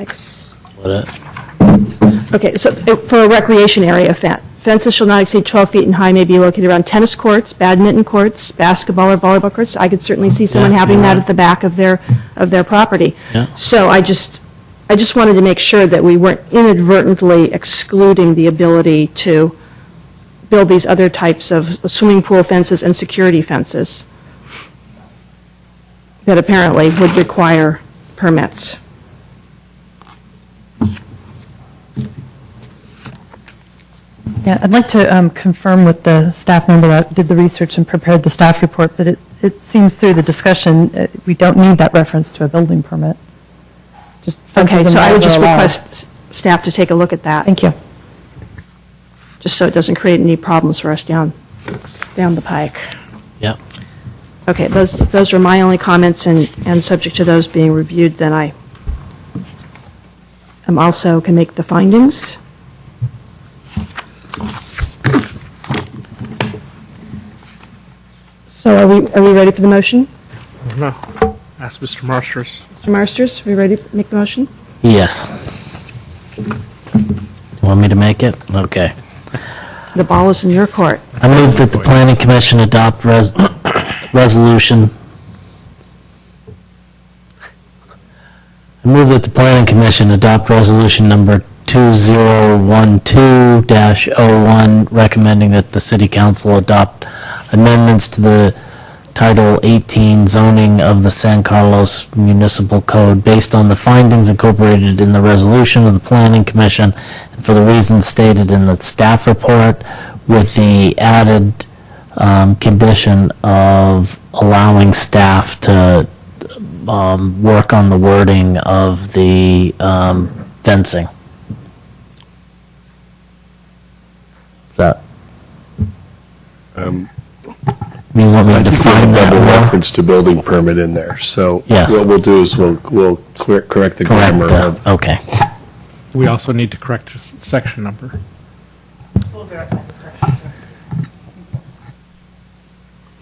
Ex- Let it- Okay, so uh, for a recreation area, fe- fences shall not exceed 12 feet in high, may be located around tennis courts, badminton courts, basketball or volleyball courts. I could certainly see someone Yeah, having that yeah. at the back of their, of their property. Yeah. So I just, I just wanted to make sure that we weren't inadvertently excluding the ability to build these other types of swimming pool fences and security fences that apparently would require permits. Yeah, I'd like to um, confirm with the staff member that did the research and prepared the staff report, but it, it seems through the discussion, uh, we don't need that reference to a building permit. Just Okay, fences and so I would walls are just allowed. request s- staff to take a look at that. Thank you. just so it doesn't create any problems for us down, down the pike. Yeah, Okay, those, those are my only comments, and, and subject to those being reviewed, then I am also can make the findings. So are we, are we ready for the motion? No. Ask Mr. Marsters. Mr. Marsters, are we ready to make the motion? yes. Want me to make it? Okay. The ball is in your court. I move that the planning commission adopt res- resolution. I move that the planning commission adopt resolution number 2012-01, oh recommending that the city council adopt amendments to the Title 18 zoning of the San Carlos Municipal Code based on the findings incorporated in the resolution of the Planning Commission and for the reasons stated in the staff report with the added um, condition of allowing staff to um, work on the wording of the um, fencing. Is that? Um, You want me to define that double more? reference to building permit in there, so. Yes. What we'll do is we'll, we'll cor- correct the Correct, grammar uh, of, okay. We also need to correct s- section number.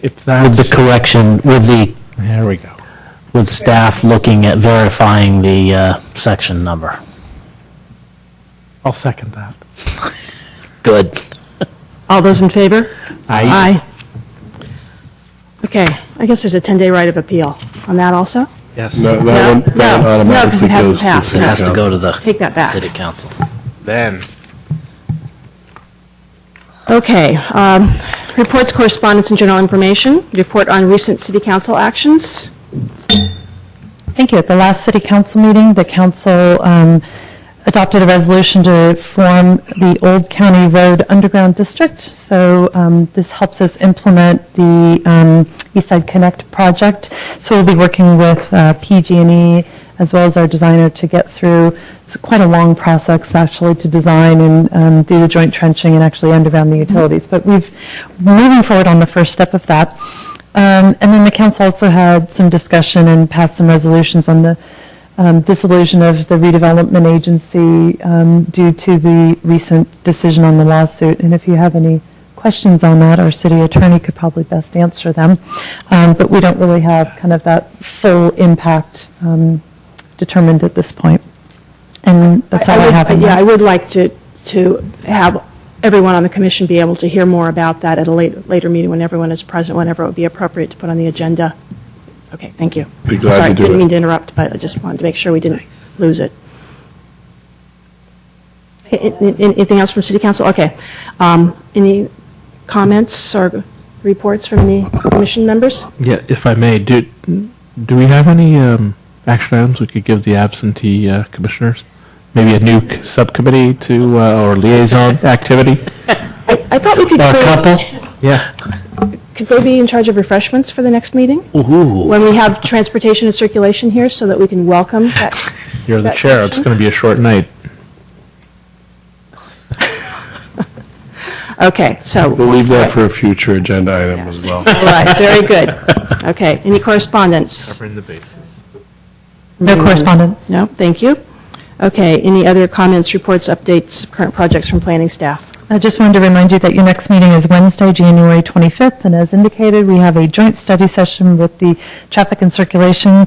If With the that, correction, with the, there we go. with staff looking at verifying the uh, section number. I'll second that. Good. All those in favor? Aye. Okay, I guess there's a 10-day right of appeal on that also? Yes. no, that one, that No, no, one because it automatically hasn't goes to the passed. It city has to go council. to the. Take that back. City council. Then, Okay, um, reports, correspondence, and general information. Report on recent city council actions. Thank you. At the last city council meeting, the council um, adopted a resolution to form the Old County Road Underground District. So um, this helps us implement the um, East Side Connect project. So we'll be working with uh, PG&E as well as our designer to get through, it's quite a long process actually to design and um, do the joint trenching and actually underground the utilities. But we've, moving forward on the first step of that. Um, And then the council also had some discussion and passed some resolutions on the um, dissolution of the redevelopment agency um, due to the recent decision on the lawsuit. And if you have any questions on that, our city attorney could probably best answer them. Um, But we don't really have kind of that full impact um, determined at this point. And that's all I would- have on Yeah, I that. would like to, to have everyone on the commission be able to hear more about that at a later, later meeting when everyone is present, whenever it would be appropriate to put on the agenda. Okay, thank you. Be glad to Sorry, do didn't it. mean to interrupt, but I just wanted to make sure we didn't lose it. A- a- a- Anything else from city council? Okay. Um, Any comments or reports from the commission members? yeah, if I may, do, do we have any um, action items we could give the absentee uh, commissioners? Maybe a new c- subcommittee to, uh, or liaison activity? I I thought we could. Or a create- couple? Yeah. Could they be in charge of refreshments for the next meeting? Ooh. When we have transportation and circulation here, so that we can welcome that. You're the That chair. It's section? going to be a short night. Okay, so, We'll leave that for a future agenda item as well. all right, very good. Okay, any correspondence? Covering the bases. No correspondence. No, thank you. Okay, any other comments, reports, updates, of current projects from planning staff? I just wanted to remind you that your next meeting is Wednesday, January 25th, and as indicated, we have a joint study session with the Traffic and Circulation